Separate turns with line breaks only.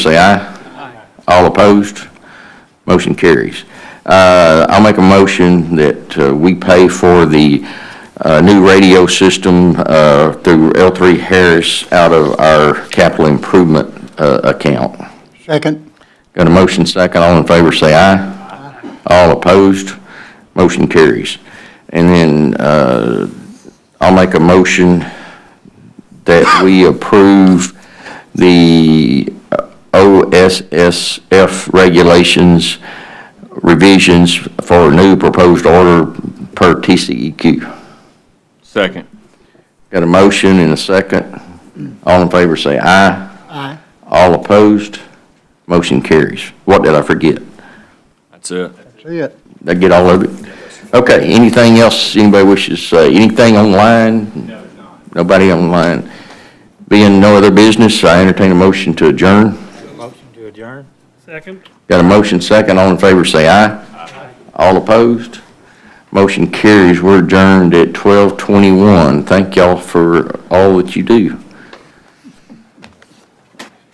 say aye. All opposed? Motion carries. Uh, I'll make a motion that uh, we pay for the uh, new radio system uh, through L3 Harris out of our capital improvement uh, account.
Second.
Got a motion second, all in favor, say aye. All opposed, motion carries. And then, uh, I'll make a motion that we approve the OSSF regulations revisions for new proposed order per TCEQ.
Second.
Got a motion and a second. All in favor, say aye.
Aye.
All opposed, motion carries. What did I forget?
That's it.
See it.
Did I get all of it? Okay, anything else anybody wishes to say? Anything online? No, not. Nobody online? Being no other business, I entertain a motion to adjourn.
Motion to adjourn?
Second.
Got a motion second, all in favor say aye. All opposed? Motion carries, we're adjourned at 12:21. Thank y'all for all that you do.